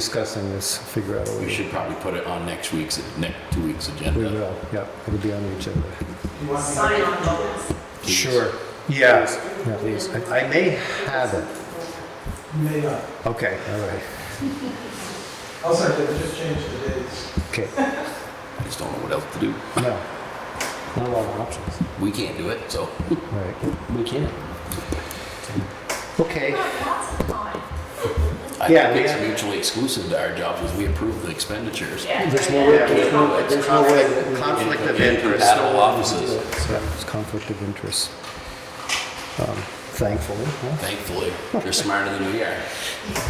discussing this, figure out a We way. should probably put it on next week's, next two weeks' We agenda. will, yeah, it'll be on the agenda. sign on bonus. please. Sure, yeah. Yeah. Please. I I may have it. May not. Okay, all right, Also, I did just change the dates. okay. I just don't know what else to do. No, not a lot of options. We can't do it, so. All right, We can't. okay. Lots of time. I Yeah, think we it's have- mutually exclusive to our jobs is we approve the expenditures. Yeah. There's no way, there's no, there's no way. that we- Conflict of In interest. Compatible offices, Yeah, It's conflict of interest. Um, Thankfully, huh? thankfully. They're smarter than we are.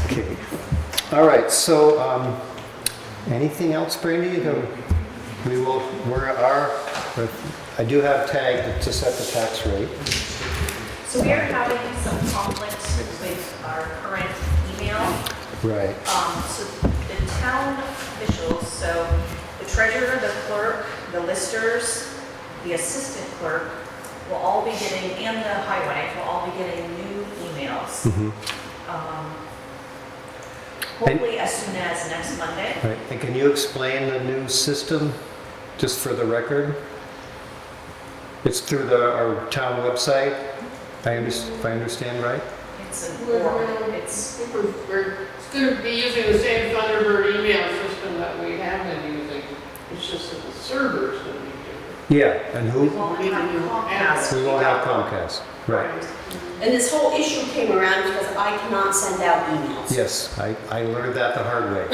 Okay. All right, so, um, anything else, Brandy? The- We will, we're, our, I do have tagged to set the tax rate. So we are having some conflicts with our current email. Right. Um, So the town officials, so the treasurer, the clerk, the listers, the assistant clerk will all be getting, and the highway will all be getting new emails. Mhm. um, Hopefully as soon as next Monday. Right, and can you explain the new system, just for the record? It's through the, our town website, I under, if I understand right? It's an We're- oral, we're- it's, We're we're gonna be using the same Thunderbird email system that we have been using. It's just that the server's gonna be different. Yeah. And we who? won't have Comcast. We won't have Comcast, right? And this whole issue came around because I cannot send out emails. Yes, I, I learned that the hard way.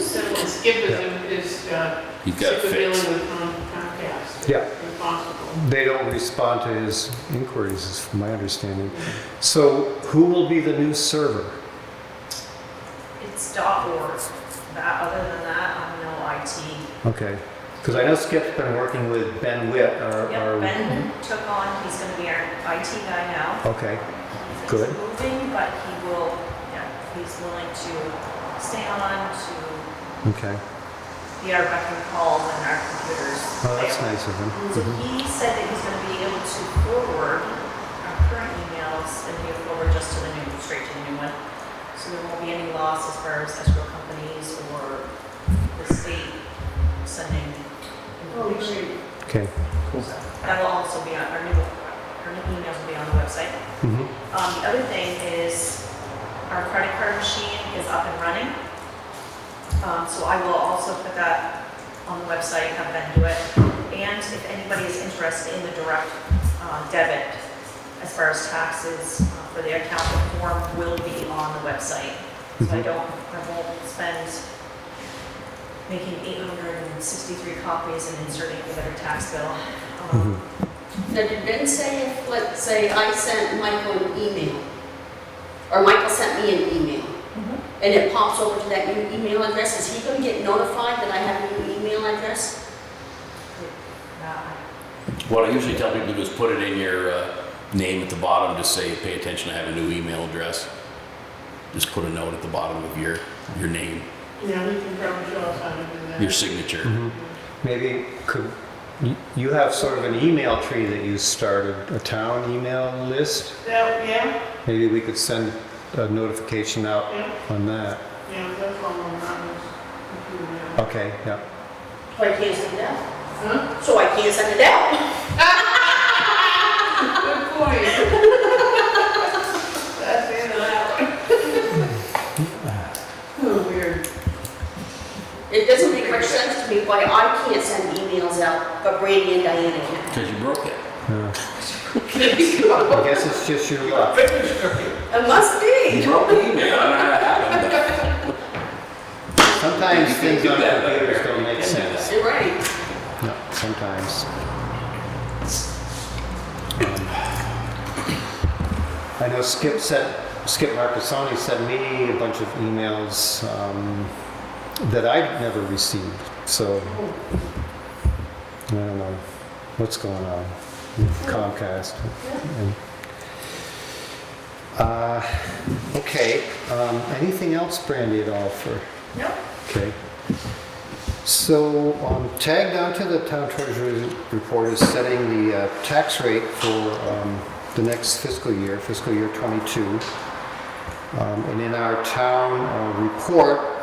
So, And Skip is, is, uh, He's got it sick of dealing fixed. with Com- Comcast. Yeah. Impossible. They don't respond to his inquiries, is from my understanding. So who will be the new server? it's dot org. That, other than that, I'm no IT. Okay, because I know Skip's been working with Ben Witt, our, Yep, our, Ben took on, he's gonna be our IT guy now. okay, He's Good. Moving, but he will, yeah, he's willing to stay on, to okay. be our beck and call when our computers Oh, that's fail. nice of him. So Mhm. he said that he's gonna be able to forward our current emails and he'll forward just to the new, straight to the new one. So there won't be any loss as far as escrow companies or the state sending Oh, information. Okay. great. That will also be on, our new, our new emails will be on the website. Mhm. Um, the other thing is our credit card machine is up and running. Um, so I will also put that on the website, have Ben do it. And if anybody is interested in the direct uh, debit, as far as taxes uh, for the account, the form will be on the website. So I Mhm. don't, I won't spend making 863 copies and inserting it with every tax bill. Um, Now, did Ben say if, let's say, I sent Michael an email, or Michael sent me an email, Mhm. and it pops over to that new email address, is he gonna get notified that I have a new email address? uh, What I usually tell people to do is put it in your uh, name at the bottom, just say, pay attention, I have a new email address. Just put a note at the bottom of your, your name, Yeah, we can probably show us how to do that. your signature. Mhm. Maybe could, you- you have sort of an email tree that you started, a town email list? That, yeah, Maybe we could send a notification out yeah, on that. yeah, that's all I'm on this computer now. Okay, yeah. So I can't send it out? Huh? So I can't send it out? Good point. That's in and out. Oh, weird. It doesn't make much sense to me why I can't send emails out, but Brandy and Diana can. Because you broke it. yeah. I guess it's just your luck. It must be. You broke the email. I don't know how that happened, but- Sometimes things on Yeah. computers don't make Yeah. sense. You're right. Yeah, Sometimes. Um, I know Skip sent, Skip Marcassoni sent me a bunch of emails um, that I'd never received, so. I don't know what's going on with Comcast. And- Uh, Okay, um, anything else, Brandy, at all for? No, Okay. So um, tagged onto the town treasurer's report is setting the uh, tax rate for um, the next fiscal year, fiscal year '22. Um, And in our town uh, report,